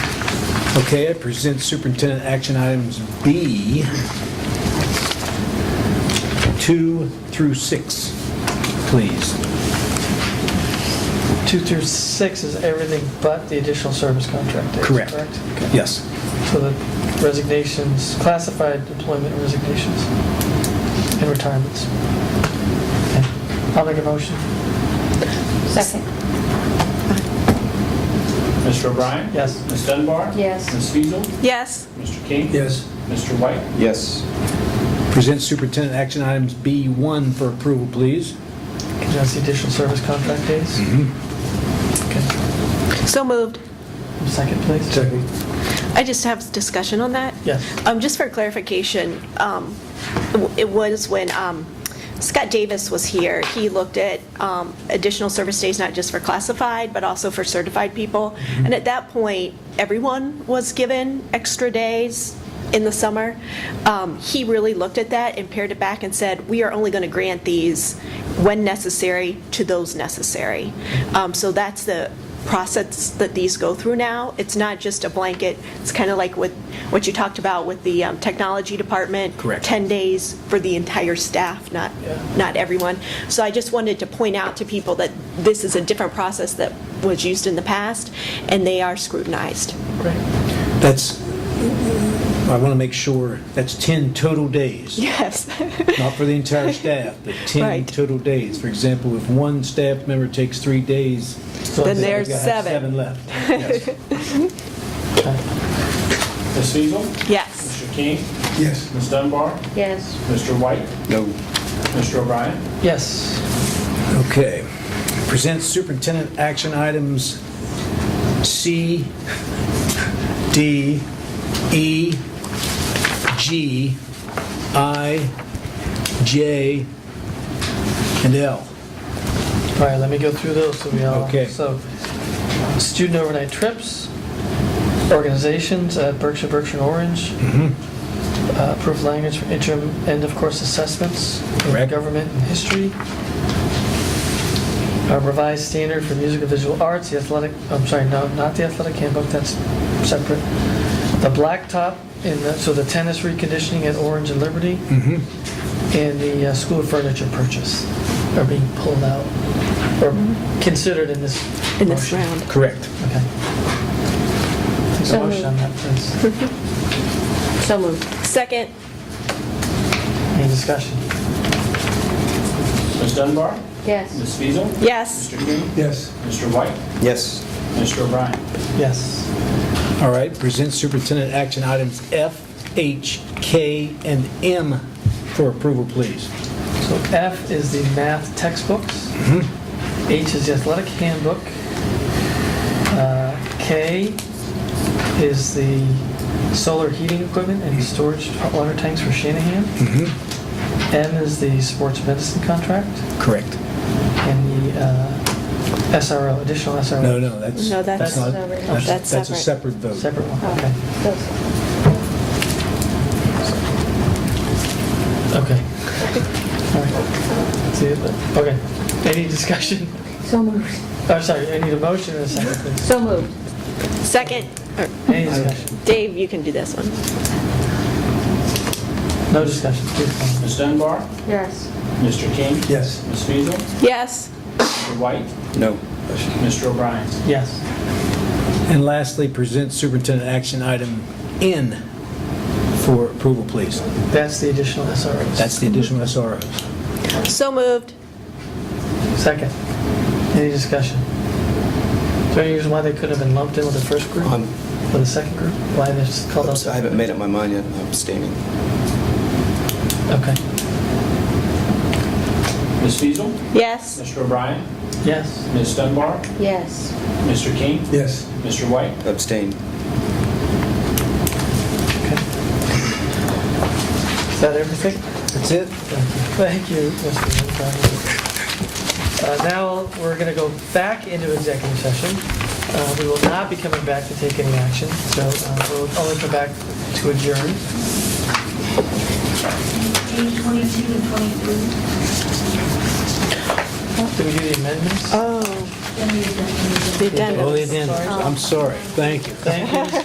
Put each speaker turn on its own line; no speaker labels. Okay, I present superintendent action items B, 2 through 6, please.
Two through six is everything but the additional service contract days,
Correct.
correct? Okay.
Yes.
So the resignations, classified employment resignations and retirements. Okay. I'll make a motion.
Second.
Mr. O'Brien?
Yes.
Ms. Dunbar?
Yes.
Ms. Feasel?
yes,
Mr. King?
Yes.
Mr. White?
Yes.
Present superintendent action items B1 for approval, please.
Can I see additional service contract days? Okay.
so moved.
Second, please.
Second.
I just have discussion on that.
Yes.
Um, Just for clarification, um, it w- it was when um, Scott Davis was here, he looked at um, additional service days, not just for classified, but also for certified people. And at that point, everyone was given extra days in the summer. Um, He really looked at that and pared it back and said, we are only going to grant these when necessary to those necessary. Um, So that's the process that these go through now. It's not just a blanket, it's kind of like with, what you talked about with the um, technology department.
Correct.
10 days for the entire staff, not, not everyone. So I just wanted to point out to people that this is a different process that was used in the past, and they are scrutinized.
Great.
That's, I want to make sure, that's 10 total days.
Yes.
not for the entire staff, but 10
Right.
total days. For example, if one staff member takes three days.
Then there's
they've got
seven.
Seven left. Yes.
Okay.
Ms. Feasel?
Yes.
Mr. King?
Yes.
Ms. Dunbar?
Yes.
Mr. White?
No.
Mr. O'Brien?
Yes.
Okay. Present superintendent action items C, D, E, G, I, J, and L.
All right, let me go through those so we all.
Okay.
So student overnight trips, organizations at Berkshire, Berkshire and Orange,
Mm-hmm.
uh, approved language for interim end of course assessments in
Correct.
government and history, a revised standard for music and visual arts, the athletic, I'm sorry, no, not the athletic handbook, that's separate. The blacktop in the, so the tennis reconditioning at Orange and Liberty, and the uh, school furniture purchase are being pulled out or considered in this
In this
motion.
round.
Correct.
Okay. Take a
So
motion on that, please.
So moved.
Second,
Any discussion?
Ms. Dunbar?
Yes.
Ms. Feasel?
yes,
Mr. King?
Yes.
Mr. White?
Yes.
Mr. O'Brien?
Yes.
All right, present superintendent action items F, H, K, and M for approval, please.
So F is the math textbooks.
Mm-hmm.
H is the athletic handbook. Uh, K is the solar heating equipment and storage hot water tanks for Shanahan.
Mm-hmm.
M is the sports medicine contract
Correct.
and the uh, SRO, additional SRO.
No, no, that's.
No, that's-
not-
that's
That's that's a separate
separate.
vote.
Separate one, okay.
Oh. Those-
Okay. All right. See it, but- Okay. Any discussion?
So moved.
I'm sorry, I need a motion and a second, please.
So moved.
second, or
Any discussion?
Dave, you can do this one.
No discussion, please. call.
Ms. Dunbar?
Yes.
Mr. King?
Yes.
Ms. Feasel?
Yes,
Mr. White?
No.
Mr. O'Brien?
Yes.
And lastly, present superintendent action item N for approval, please.
That's the additional SROs.
That's the additional SROs.
so moved.
Second. Any discussion? Is there any reason why they couldn't have been lumped in with the first group?
I'm-
With the second group? Why they just called out?
I haven't made up my mind yet. I'm abstaining.
Okay.
Ms. Feasel?
Yes,
Mr. O'Brien?
Yes.
Ms. Dunbar?
Yes.
Mr. King?
Yes.
Mr. White?
Abstain.
Okay. Is that everything?
That's it?
Thank you, Mr. Montgomery. Uh, Now, we're going to go back into executive session. Uh, We will not be coming back to take any action, so uh, we'll only come back to adjourn.
Page 22 and 23,
Did we do the amendments?
oh,
then we
they've done it.
Oh, they did. I'm sorry. Thank you.
Thank you,